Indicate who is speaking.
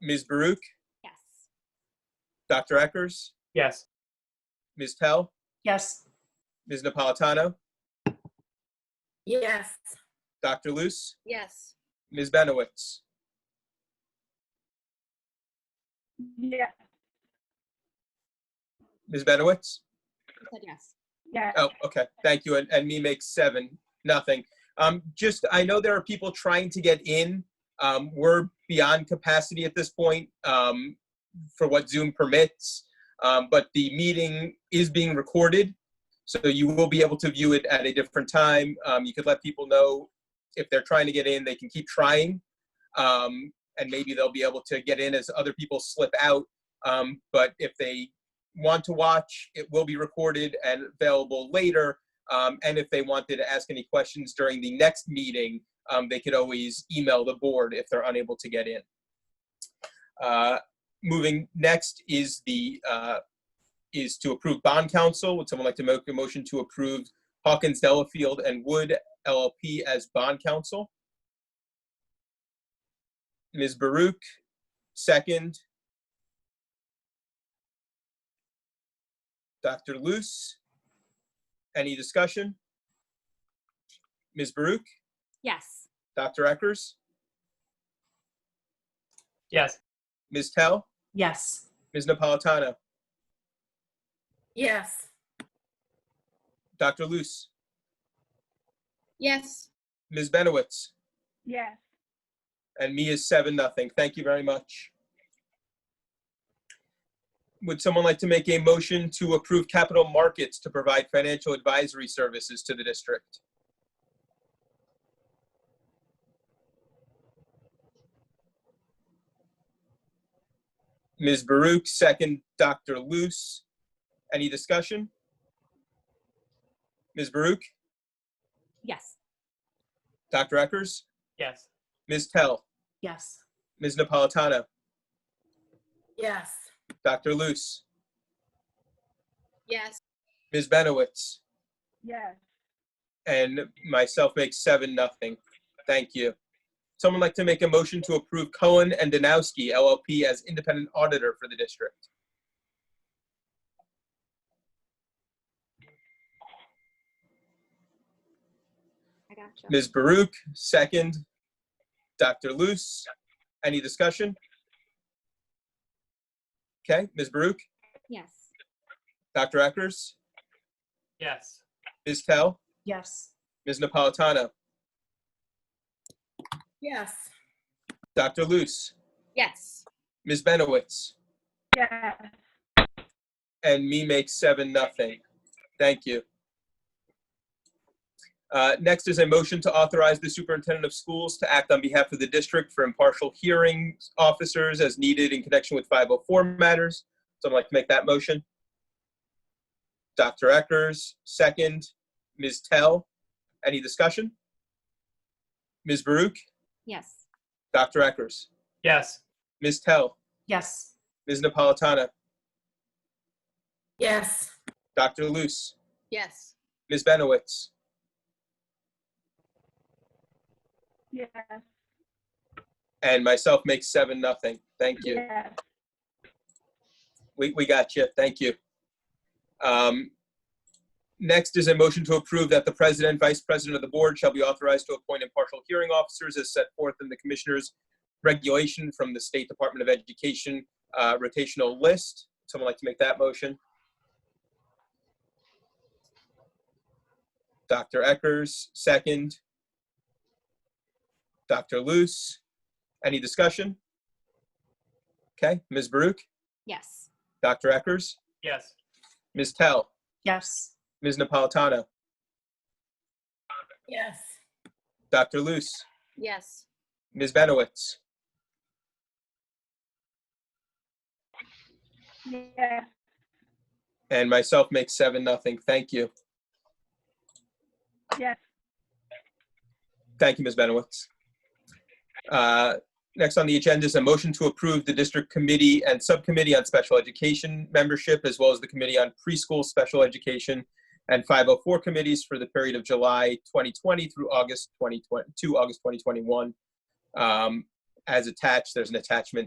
Speaker 1: Ms. Baruch,
Speaker 2: Yes.
Speaker 1: Dr. Eckers,
Speaker 3: Yes.
Speaker 1: Ms. Pell,
Speaker 4: Yes.
Speaker 1: Ms. Napolitano,
Speaker 4: Yes.
Speaker 1: Dr. Luce,
Speaker 2: Yes.
Speaker 1: Ms. Benowitz.
Speaker 4: Yeah,
Speaker 1: Ms. Benowitz?
Speaker 2: I said yes.
Speaker 4: yeah.
Speaker 1: Oh, okay. Thank you. And, and me makes seven, nothing. Um, just, I know there are people trying to get in. Um, we're beyond capacity at this point um, for what Zoom permits. Um, but the meeting is being recorded, so you will be able to view it at a different time. Um, you could let people know if they're trying to get in, they can keep trying. Um, and maybe they'll be able to get in as other people slip out. Um, but if they want to watch, it will be recorded and available later. Um, and if they wanted to ask any questions during the next meeting, um, they could always email the board if they're unable to get in. Uh, moving next is the uh, is to approve bond counsel. Would someone like to make a motion to approve Hawkins Delafield and Wood LLP as bond counsel? Ms. Baruch, second. Dr. Luce, any discussion? Ms. Baruch,
Speaker 2: Yes.
Speaker 1: Dr. Eckers,
Speaker 3: Yes.
Speaker 1: Ms. Tell,
Speaker 4: Yes.
Speaker 1: Ms. Napolitano,
Speaker 4: Yes.
Speaker 1: Dr. Luce,
Speaker 2: Yes.
Speaker 1: Ms. Benowitz,
Speaker 4: Yes.
Speaker 1: and me is seven, nothing. Thank you very much. Would someone like to make a motion to approve capital markets to provide financial advisory services to the district? Ms. Baruch, second Dr. Luce. Any discussion? Ms. Baruch,
Speaker 2: Yes.
Speaker 1: Dr. Eckers,
Speaker 3: Yes.
Speaker 1: Ms. Tell,
Speaker 4: Yes.
Speaker 1: Ms. Napolitano,
Speaker 4: Yes.
Speaker 1: Dr. Luce.
Speaker 2: Yes.
Speaker 1: Ms. Benowitz,
Speaker 4: Yes.
Speaker 1: and myself makes seven, nothing. Thank you. Someone like to make a motion to approve Cohen and Danowski LLP as independent auditor for the district?
Speaker 2: I gotcha.
Speaker 1: Ms. Baruch, second. Dr. Luce, any discussion? Okay, Ms. Baruch,
Speaker 2: Yes.
Speaker 1: Dr. Eckers,
Speaker 3: Yes.
Speaker 1: Ms. Tell,
Speaker 4: Yes.
Speaker 1: Ms. Napolitano,
Speaker 4: Yes.
Speaker 1: Dr. Luce,
Speaker 2: Yes.
Speaker 1: Ms. Benowitz.
Speaker 4: Yes.
Speaker 1: and me makes seven nothing. Thank you. Uh, next is a motion to authorize the superintendent of schools to act on behalf of the district for impartial hearings officers as needed in connection with 504 matters. Someone like to make that motion? Dr. Eckers, second. Ms. Tell, any discussion? Ms. Baruch,
Speaker 2: Yes.
Speaker 1: Dr. Eckers,
Speaker 3: Yes.
Speaker 1: Ms. Tell,
Speaker 4: Yes.
Speaker 1: Ms. Napolitano,
Speaker 4: Yes.
Speaker 1: Dr. Luce.
Speaker 2: Yes.
Speaker 1: Ms. Benowitz?
Speaker 4: Yes.
Speaker 1: And myself makes seven, nothing. Thank you.
Speaker 4: Yes.
Speaker 1: We, we got you. Thank you. Um, next is a motion to approve that the president, vice president of the board shall be authorized to appoint impartial hearing officers as set forth in the commissioner's regulation from the State Department of Education uh, rotational list. Someone like to make that motion? Dr. Eckers, second. Dr. Luce, any discussion? Okay, Ms. Baruch?
Speaker 2: Yes.
Speaker 1: Dr. Eckers,
Speaker 3: Yes.
Speaker 1: Ms. Tell,
Speaker 4: Yes.
Speaker 1: Ms. Napolitano,
Speaker 4: Yes.
Speaker 1: Dr. Luce,
Speaker 2: Yes.
Speaker 1: Ms. Benowitz,
Speaker 4: Yes.
Speaker 1: and myself makes seven, nothing. Thank you.
Speaker 4: Yes.
Speaker 1: Thank you, Ms. Benowitz. Uh, Next on the agenda is a motion to approve the district committee and subcommittee on special education membership, as well as the committee on preschool special education and 504 committees for the period of July 2020 through August 2020, to August 2021. Um, As attached, there's an attachment